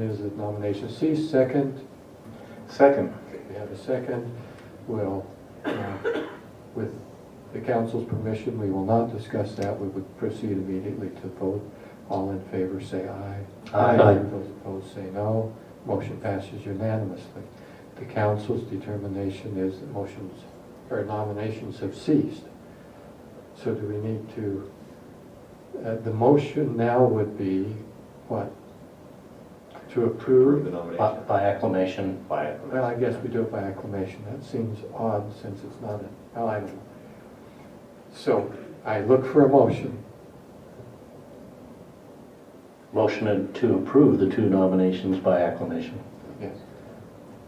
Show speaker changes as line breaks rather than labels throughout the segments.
Is that nomination cease, second,
Second.
we have a second, will, uh, with the council's permission, we will not discuss that, we would proceed immediately to vote. All in favor, say aye.
Aye.
Those opposed, say no, motion passes unanimously. The council's determination is that motions, or nominations have ceased. So do we need to, uh, the motion now would be, what? To
Approve
approve?
the
By
nomination.
by acclamation,
By it.
Well, I guess we do it by acclamation. That seems odd since it's not an well, I don't know. So I look for a motion.
motion to approve the two nominations by acclamation.
Yes.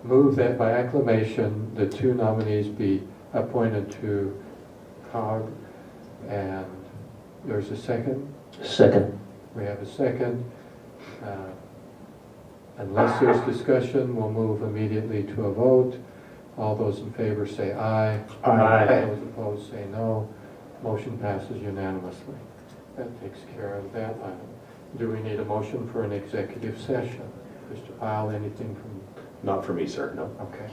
Move that by acclamation, the two nominees be appointed to COG. And there's a second.
Second.
We have a second. Uh, Unless there's discussion, we'll move immediately to a vote. All those in favor say aye. Those opposed say no. Motion passes unanimously. That takes care of that item. Do we need a motion for an executive session? Mr. Pyle, anything from,
Not for me, sir, no.
okay,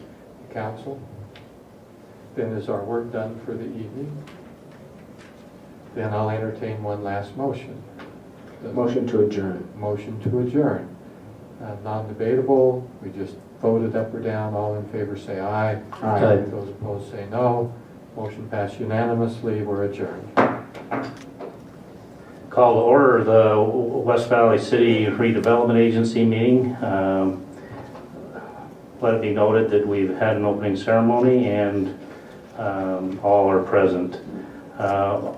the council? Then is our work done for the evening? Then I'll entertain one last motion. The
to adjourn.
Motion to adjourn. Uh, Non-debatable, we just voted up or down, all in favor say aye.
Aye. Aye.
Those opposed say no. Motion passed unanimously, we're adjourned.
Call to order the West Valley City Redevelopment Agency meeting. Um, Let it be noted that we've had an opening ceremony and um, all are present. Uh,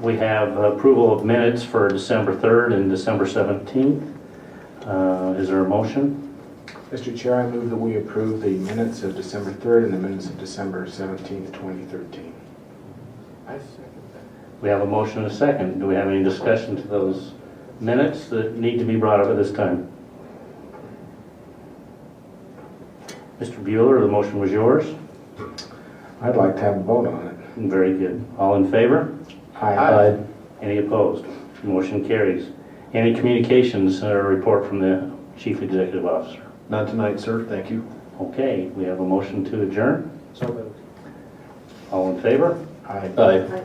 We have approval of minutes for December 3rd and December 17th. Uh, Is there a motion?
Mr. Chair, I move that we approve the minutes of December 3rd and the minutes of December 17th, 2013.
I second that.
We have a motion and a second. Do we have any discussion to those minutes that need to be brought up at this time? Mr. Bueller, the motion was yours.
I'd like to have a vote on it.
Very good. All in favor?
Aye.
Any opposed? Motion carries. Any communications or report from the chief executive officer?
Not tonight, sir, thank you.
Okay, we have a motion to adjourn. All in favor?
Aye.
Aye.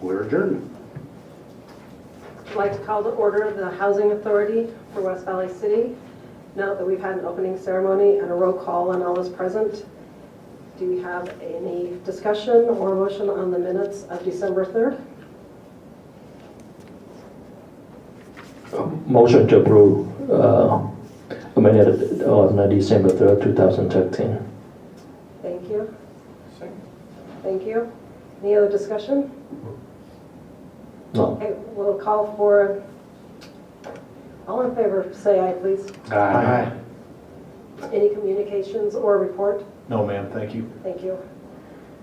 We're adjourned.
I'd like to call to order the Housing Authority for West Valley City. Now that we've had an opening ceremony and a roll call and all is present, do we have any discussion or motion on the minutes of December 3rd?
Motion to approve, uh, amended uh, on December 3rd, 2013.
Thank you. Thank you. Any other discussion?
No.
Okay, we'll call for, all in favor, say aye, please.
Aye.
Any communications or report?
No, ma'am, thank you.
Thank you.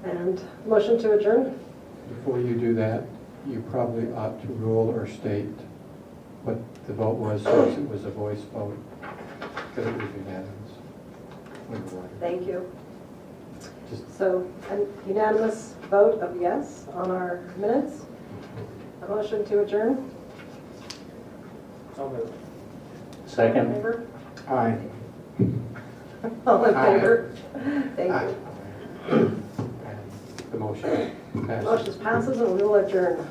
And motion to adjourn?
Before you do that, you probably ought to rule or state what the vote was, since it was a voice vote, because it was unanimous. We won.
Thank you.
Just-
So a unanimous vote of yes on our minutes. A motion to adjourn. All in
Second?
favor?
Aye.
All in
Aye.
favor? Thank
Aye.
you.
And The motion passes.
Motion passes and we will adjourn.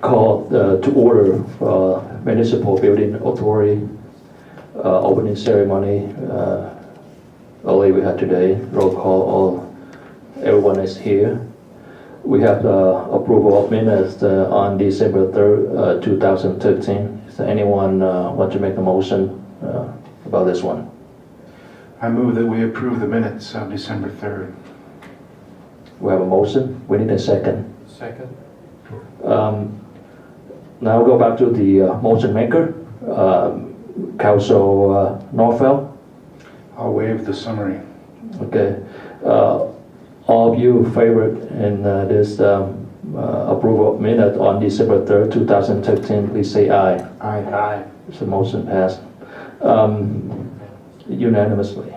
Call uh, to order uh, Municipal Building Authority uh, opening ceremony. uh, Early we had today, roll call, all, everyone is here. We have uh, approval of minutes uh, on December 3rd, uh, 2013. Does anyone uh, want to make a motion uh, about this one?
I move that we approve the minutes of December 3rd.
We have a motion, we need a second.
Second,
Um, Now go back to the uh, motion maker, um, Council uh, Norfeld.
I'll waive the summary.
Okay. Uh, All of you favored in uh, this um, uh, approval of minute on December 3rd, 2013, please say aye.
Aye.
Aye.
So motion passed um, unanimously.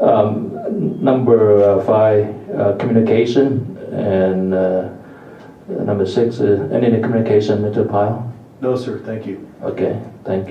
Um, n- Number uh, five, uh, communication, and uh, number six, uh, any communication, Mr. Pyle?
No, sir, thank you.
Okay. Thank you.